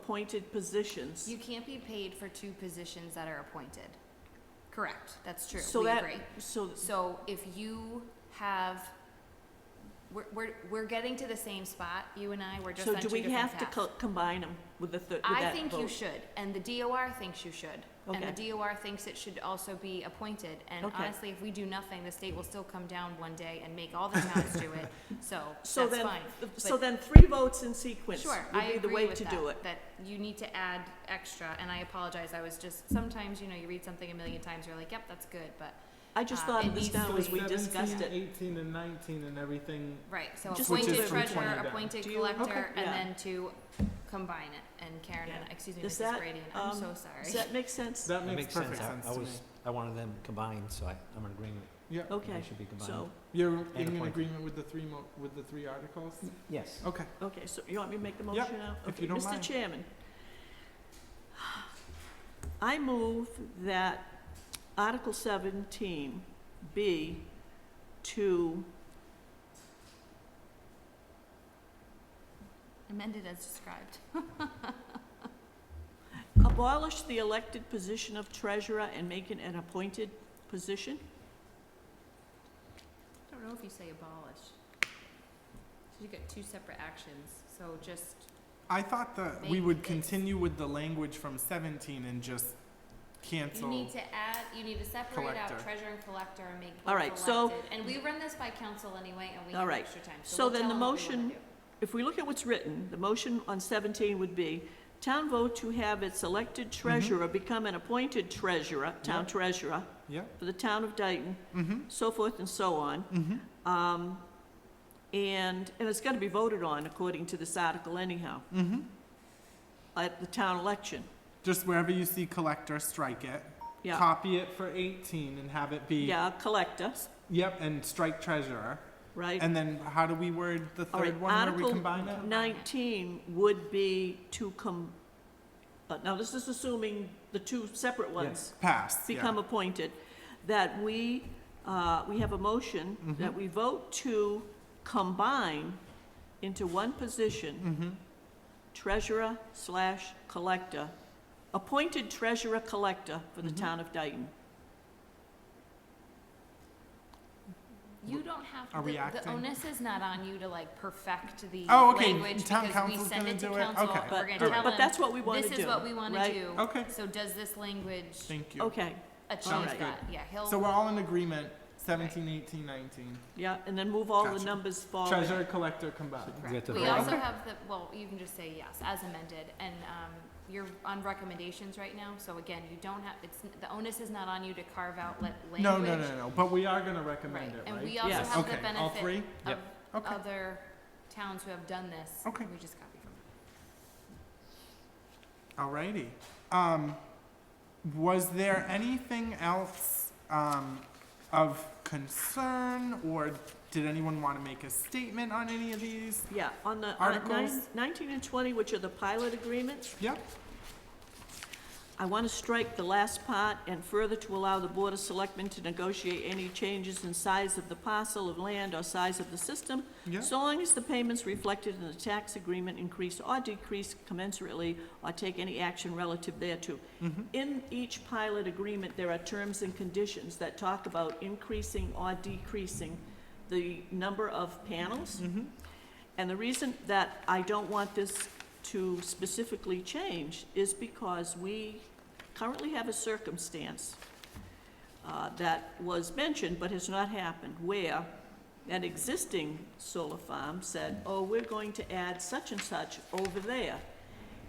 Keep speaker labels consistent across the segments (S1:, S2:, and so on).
S1: appointed positions.
S2: You can't be paid for two positions that are appointed. Correct, that's true,
S1: So
S2: we
S1: that-
S2: agree.
S1: So,
S2: So if you have, we're, we're, we're getting to the same spot, you and I, we're just
S1: so
S2: on
S1: do
S2: two
S1: we
S2: different
S1: have to
S2: paths.
S1: co- combine them with the, thir- with
S2: I
S1: that
S2: think you
S1: vote?
S2: should, and the DOR thinks you should. And
S1: Okay.
S2: the DOR thinks it should also be appointed, and
S1: Okay.
S2: honestly, if we do nothing, the state will still come down one day and make all the towns do it, so
S1: So
S2: that's
S1: then-
S2: fine.
S1: th-
S2: But-
S1: So then three votes in sequence
S2: Sure,
S1: would
S2: I
S1: be the
S2: agree
S1: way
S2: with
S1: to
S2: that,
S1: do it.
S2: that you need to add extra, and I apologize, I was just, sometimes, you know, you read something a million times, you're like, yep, that's good, but,
S1: I just
S2: uh,
S1: thought
S2: it
S1: of this
S2: needs
S1: down
S2: to
S1: as
S2: be-
S1: we discussed it.
S3: Eighteen and nineteen and everything,
S2: right, so
S1: Just Which is
S2: appointed
S1: from
S3: 20
S2: treasurer,
S3: down.
S2: appointed
S1: Do you-
S2: collector,
S1: Okay.
S2: and
S1: Yeah.
S2: then to combine it, and Karen, and,
S1: Yeah.
S2: excuse me,
S1: Does
S2: Mrs.
S1: that,
S2: Brady, and I'm so
S1: um, Does
S2: sorry.
S1: that make sense?
S3: that
S4: That
S3: makes
S4: makes sense.
S3: perfect
S4: I-
S3: sense
S4: I
S3: to me.
S4: was, I wanted them combined, so I, I'm in agreement.
S3: Yeah,
S1: Okay,
S4: They should be combined.
S1: so,
S3: you're
S4: And
S3: in
S4: appointed.
S3: agreement with the three mo, with the three articles?
S4: Mm-hmm. Yes.
S3: Okay,
S1: okay, so you want me to make the
S3: Yep,
S1: motion now?
S3: if
S1: Okay,
S3: you don't
S1: Mr.
S3: mind.
S1: Chairman, I move that Article seventeen be to,
S2: Amended as described.
S1: Abolish the elected position of treasurer and make it an appointed position?
S2: I don't know if you say abolish. You get two separate actions, so just,
S3: I thought that we
S2: Maybe
S3: would
S2: it's-
S3: continue with the language from seventeen and just
S2: you
S3: cancel.
S2: need to add, you need to separate out
S3: Collector.
S2: treasurer and collector and make
S1: All
S2: both
S1: right, so-
S2: elected, and we run this by council anyway, and we
S1: All
S2: have
S1: right,
S2: extra time,
S1: so
S2: so we'll
S1: then
S2: tell
S1: the
S2: them what we wanna
S1: motion-
S2: do.
S1: If we look at what's written, the motion on 17 would be, town vote to have its elected treasurer become an appointed treasurer, town
S3: Yep.
S1: treasurer,
S3: Yeah,
S1: for the town of Dayton,
S3: mm-hmm,
S1: so forth and so on.
S3: mm-hmm.
S1: Um, And, and it's got to be voted on according to this article anyhow,
S3: Mm-hmm.
S1: at the town election.
S3: Just wherever you see collector, strike it.
S1: Yeah,
S3: Copy it for 18 and have it be.
S1: yeah, collector,
S3: Yep, and strike treasurer.
S1: right?
S3: And then how do we word the
S1: All right,
S3: third one where
S1: Article
S3: we combine it?
S1: 19 would be to come, but now this is assuming the two separate ones
S3: Yes, pass. yeah.
S1: become appointed, that we, uh, we have a motion that
S3: Mhm.
S1: we vote to combine into one position,
S3: Mhm.
S1: treasurer slash collector, appointed treasurer collector for the
S3: Mhm.
S1: town of Dayton.
S2: You don't have,
S3: Are we
S2: the, the
S3: acting?
S2: onus is not on you to like perfect the
S3: Oh, okay,
S2: language
S3: town
S2: because we
S3: council's
S2: send
S3: gonna
S2: it to
S3: do it?
S2: council,
S3: Okay,
S2: we're
S1: But,
S2: gonna
S3: all right.
S2: tell
S1: but that's
S2: them,
S1: what we want to do.
S2: this is what we wanna
S1: right?
S2: do.
S3: Okay,
S2: So does this language
S3: thank you.
S1: Okay,
S3: Sounds
S2: achieve
S3: good.
S2: that? Yeah,
S3: So
S2: he'll,
S3: we're all in agreement 17, 18, 19.
S1: yeah, and then move all the
S3: Gotcha.
S1: numbers forward.
S3: Treasurer, collector combined.
S4: We have
S2: correct.
S4: to
S2: We
S4: vote.
S2: also
S3: Okay.
S2: have the, well, you can just say yes, as amended, and, um, you're on recommendations right now, so again, you don't have, it's, the onus is not on you to carve out la- language.
S3: No, no, no, no. But we are going to recommend
S2: Right,
S3: it,
S2: and
S3: right?
S2: we also
S1: Yes.
S2: have the
S3: okay, all
S2: benefit
S3: three?
S2: of
S4: Yep.
S3: Okay.
S2: other towns who have done this,
S3: Okay.
S2: we just copy from them.
S3: Alrighty. Um, was there anything else um, of concern, or did anyone want to make a statement on any of these?
S1: Yeah, on the, on nine-
S3: Articles?
S1: 19 and 20, which are the pilot agreements,
S3: Yep.
S1: I want to strike the last part, and further to allow the Board of Selectmen to negotiate any changes in size of the parcel of land or size of the system,
S3: Yep.
S1: so long as the payments reflected in the tax agreement increase or decrease commensurately, or take any action relative thereto.
S3: Mhm.
S1: In each pilot agreement, there are terms and conditions that talk about increasing or decreasing the number of panels.
S3: Mhm.
S1: And the reason that I don't want this to specifically change is because we currently have a circumstance uh, that was mentioned but has not happened, where an existing solar farm said, oh, we're going to add such and such over there.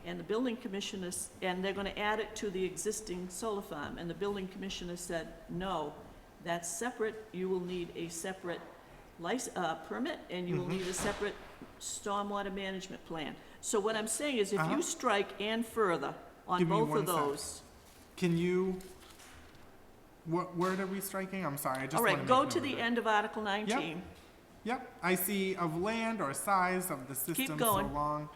S1: And the building commissioner, s- and they're gonna add it to the existing solar farm, and the building commissioner said, no, that's separate, you will need a separate lic uh, permit, and you will
S3: Mhm.
S1: need a separate stormwater management plan. So what I'm saying is, if
S3: Uh-huh.
S1: you strike and further on
S3: Give me
S1: both
S3: one
S1: of
S3: sec.
S1: those.
S3: Can you? What word are we striking? I'm sorry. I just
S1: All
S3: wanna
S1: right,
S3: make
S1: go
S3: note
S1: to
S3: of
S1: the
S3: it.
S1: end of Article nineteen.
S3: Yep. I see of land or size of the system so
S1: going.
S3: long,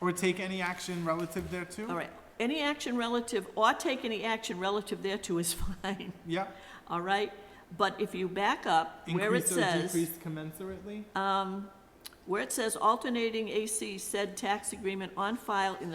S3: or take any action relative thereto.
S1: All right, any action relative, or take any action relative thereto is fine,
S3: Yep.
S1: all right? But if you back up, where it
S3: Increase or
S1: says,
S3: decrease commensurately.
S1: um, where it says alternating AC said tax agreement on file in the